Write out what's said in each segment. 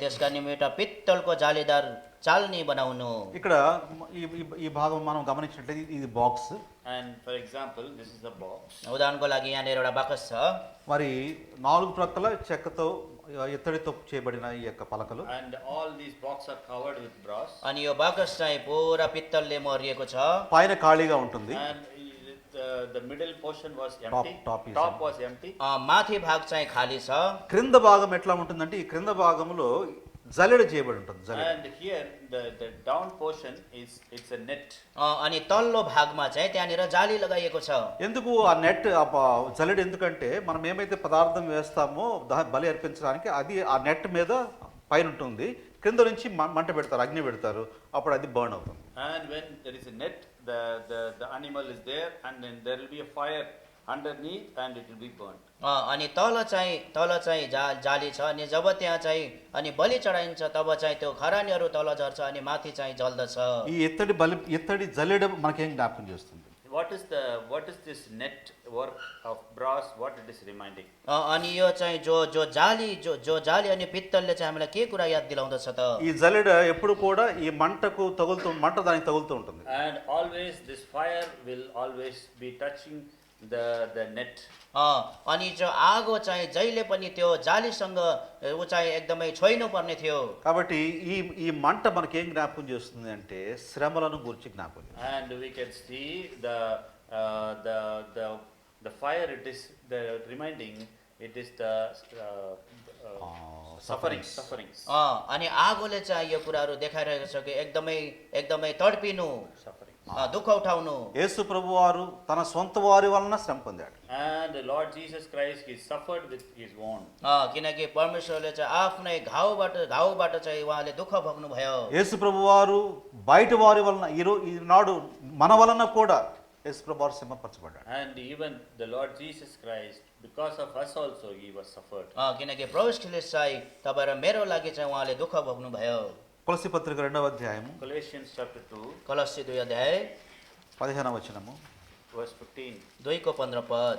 त्यसका निमित्त पित्तलको जालीदार चाल्नी बनाउनु ఇక్కడ ఈ ఈ- ఈ భాగం మనం గమనించినట్లయితే ఇది- ఇది box And for example, this is a box. उदाहरणको लागि यहाँनिर एउटा बाकस छ మరి నాలుగు ప్రక్కల చెక్కతో ఇత్తడితో చేయబడిన ఈ యొక్క పలకలు And all these boxes are covered with brass. अनि यो बाकस चाहिँ पुरा पित्तलले मरिएको छ పైన ఖాళీగా ఉంటుంది And it, uh, the middle portion was Top- empty. top is empty. was empty. अ, माथि भाग चाहिँ खाली छ క్రింద భాగం ఎట్లా ఉంటుందంటే ఈ క్రింద భాగంలో జల్లెడ చేయబడి ఉంటుంది జల్లెడ And here, the, the down portion is, it's a net. अ, अनि तल्लो भागमा चाहिँ त्यहाँनिर जाली लगाइएको छ ఎందుకు ఆ నెట్ ఆ ప- జల్లెడ ఎందుకంటే మనం ఏమైతే పదార్థం వేస్తామో దా- బలి అర్పించడానికి అది ఆ నెట్ మీద పైన ఉంటుంది క్రింద నుంచి మ- మంట పెడతారు అగ్ని పెడతారు అప్పుడు అది బర్న్ అవుతుంది And when there is a net, the, the, the animal is there and then there will be a fire underneath and it will be burnt. अ, अनि तल चाहिँ तल चाहिँ जा जाली छ अनि जब त्यहाँ चाहिँ अनि बलि चढाइन्छ तब चाहिँ त्यो खरानीहरू तल झर्छ अनि మాథి चाहिँ जल्दछ ఈ ఎత్తడి బలి ఎత్తడి జల్లెడ మనకేం జ్ఞాపకం చేస్తుంది What is the, what is this net work of brass, what it is reminding? अ, अनि यो चाहिँ जो जो जाली जो जो जाली अनि पित्तलले चाहिँ हामीलाई के कुरा याद दिलाउँदछ त ఈ జల్లెడ ఎప్పుడు కూడా ఈ మంటకు తగులుతూ మంట దానికి తగులుతూ ఉంటుంది And always, this fire will always be touching the, the net. अ, अनि जो आगो चाहिँ जहिले पनि त्यो जालीसँग ए, ऊ चाहिँ एकदमै छोइनु पर्ने थियो కాబట్టి ఈ ఈ మంట మనకేం జ్ఞాపకం చేస్తుంది అంటే శ్రమలను గురించి జ్ఞాపకం చేస్తుంది. And we can see the, uh, the, the, the fire, it is the reminding, it is the uh, uh, Ah, suffering, sufferings. sufferings. अ, अनि आगोले चाहिँ यो कुराहरू देखाइरहेको छ कि एकदमै एकदमै तडपिनु suffering. अ, दुःख उठाउनु యేసు ప్రభు వారు తన సొంత వారి వలన శ్రమ పొందాడు And the Lord Jesus Christ, he suffered with his wound. अ, किनकि परमेश्वरले चाहिँ आफ्नै घाउबाट घाउबाट चाहिँ उहाँले दुःख भोग्नुभयो యేసు ప్రభు వారు బయట వారి వలన ఈరో ఈనాడు మన వలన కూడా యేసు ప్రభు వారు శ్రమపరచబడ్డాడు And even the Lord Jesus Christ, because of us also, he was suffered. अ, किनकि प्रवेश चाहिँ तपाईँ र मेरो लागि चाहिँ उहाँले दुःख भोग्नुभयो తులసి పత్రిక రెండవ అధ్యాయము Colossians chapter 2, कलसी दुई अध्याय పదిహేనవ వచనము verse 15. दुईको पन्ध्र पद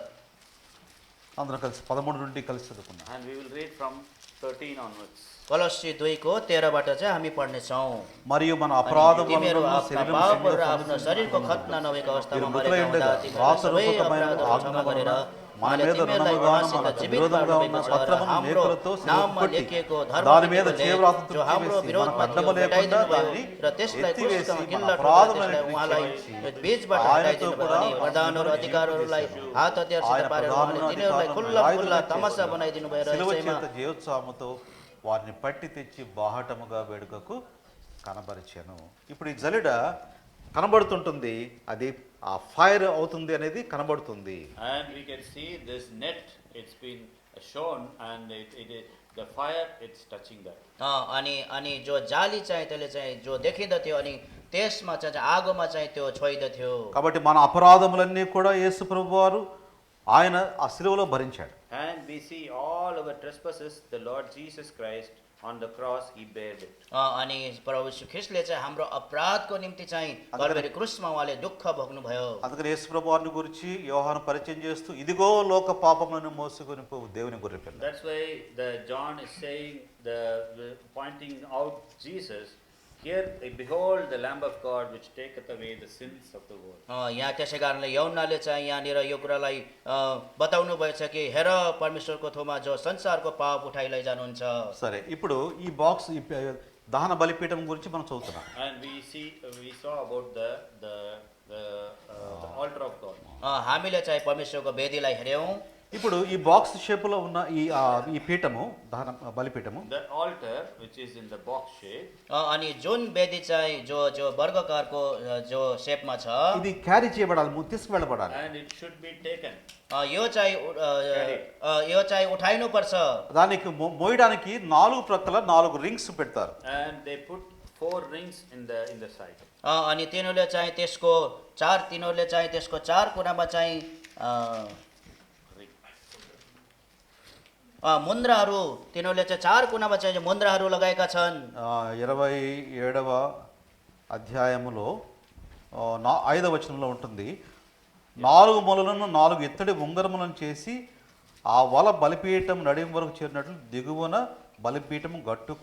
అందరం కలిసి పదమూడు నుండి కలిసి చదువుకున్నాం And we will read from 13 onwards. कलसी दुईको तेह्रबाट चाहिँ हामी पढ्नेछौँ మరియు మన अनि అపరాధం तिमीहरू వలన आफ्ना శరీరం पापहरू र శరీరం आफ्नो शरीरको खतना नभएको अवस्थामा మీరు मरेका हुँदा मृतयुण्डका तिमीहरू सबै वासरूपकమైన अपराधहरू क्षमा गरेर మన उहाँले మీద तिमीहरूलाई రుణముగాను, उहाँसित మనకు जीवित विरोधमुगा पार्नुभएको ఉన్న छ र పత్రమును हाम्रो నేకులతో శిలువ नाममा కొట్టి, लेखिएको దాని మీద धर्मदूतले చేవ్రాతతో जो हाम्रो తీసివేసి, विरोधमा మనకు थियो, అడ్డము లేకుండా भेटाइदिनु भयो దాన్ని र त्यसलाई ఎత్తివేసి, क्रुससँग మన गिल्ला ठोकेर అపరాధములను त्यसलाई उहाँलाई క్షమించి, बीचबाट ఆయనతో हटाइदिनु भयो కూడా अनि प्रधानहरू अधिकारहरूलाई हात हतियारसित ఆయన पारेर ప్రధానులను, उहाँले तिनीहरूलाई అధికారులను खुल्ला खुल्ला రాయుధులను तमासा చేశాడు. बनाइदिनु भयो र శిలువ यसैमा చేత జయోత్సాహముతో వారిని పట్టి తెచ్చి బాహటముగా వేడుకకు కనబరిచాను ఇప్పుడు ఈ జలిడ కనబడుతుంటుంది అది ఆ ఫైర్ అవుతుంది అనేది కనబడుతుంది And we can see this net, it's been shown and it, it is, the fire, it's touching that. अ, अनि अनि जो जाली चाहिँ त्यसले चाहिँ जो देखिँदथ्यो अनि त्यसमा चाहिँ चाहिँ आगोमा चाहिँ त्यो छोइदथ्यो కాబట్టి మన అపరాధములన్నీ కూడా యేసు ప్రభు వారు ఆయన ఆ శిలువలో భరించాడు And we see all our trespasses, the Lord Jesus Christ on the cross, he bared it. अ, अनि प्रभु श्री ख्रिस्टले चाहिँ हाम्रो अपराधको निम्ति चाहिँ అందుకని- कलवरी क्रुसमा उहाँले दुःख भोग्नुभयो అందుకని యేసు ప్రభు వారిని గురించి యోహాను పరిచయం చేస్తూ ఇదిగో లోక పాపములను మోసుకొని పోవు దేవుని గొర్రెపిల్ల That's why the John is saying, the, the- pointing out Jesus, here behold the Lamb of God which taketh away the sins of the world. अ, यहाँ त्यसै कारणले यौनाले चाहिँ यहाँनिर यो कुरालाई अ, बताउनु भएछ कि हेर परमेश्वरको थोमा जो संसारको पाप उठाइ लैजानुहुन्छ సరే ఇప్పుడు ఈ బాక్స్ ఈ ప- దహన బలిపీఠం గురించి మనం చదువుతున్నాం And we see, we saw about the, the, the, uh, the altar of God. अ, हामीले चाहिँ परमेश्वरको वेदीलाई हेऱ्यौँ ఇప్పుడు ఈ బాక్స్ షేపులో ఉన్న ఈ ఆ, ఈ పీఠము దహన బలిపీఠము The altar which is in the box shape, अ, अनि जुन वेदी चाहिँ जो जो वर्गकारको अ, जो सेपमा छ ఇది క్యారీ చేయబడాలి ము- తీసుకువెళ్ళబడాలి and it should be taken. अ, यो चाहिँ उ- अ, अ, यो चाहिँ उठाइनुपर्छ దానికి మో- మోయడానికి నాలుగు ప్రక్కల నాలుగు రింగ్స్ పెడతారు And they put four rings in the, in the side. अ, अनि तिनीहरूले चाहिँ त्यसको चार तिनीहरूले चाहिँ त्यसको चार कुनामा चाहिँ अ, Ring. अ, मुन्द्राहरू तिनीहरूले चाहिँ चार कुनामा चाहिँ मुन्द्राहरू लगाएका छन् ఆ, ఇరవై ఏడవ అధ్యాయములో ఆ, నా ఐదవ వచనంలో ఉంటుంది నాలుగు మొలలను నాలుగు ఇత్తడి ఉంగరములను చేసి ఆ వల బలిపీఠం నడిం వరకు చేరినట్లు దిగువన బలిపీఠం గట్టు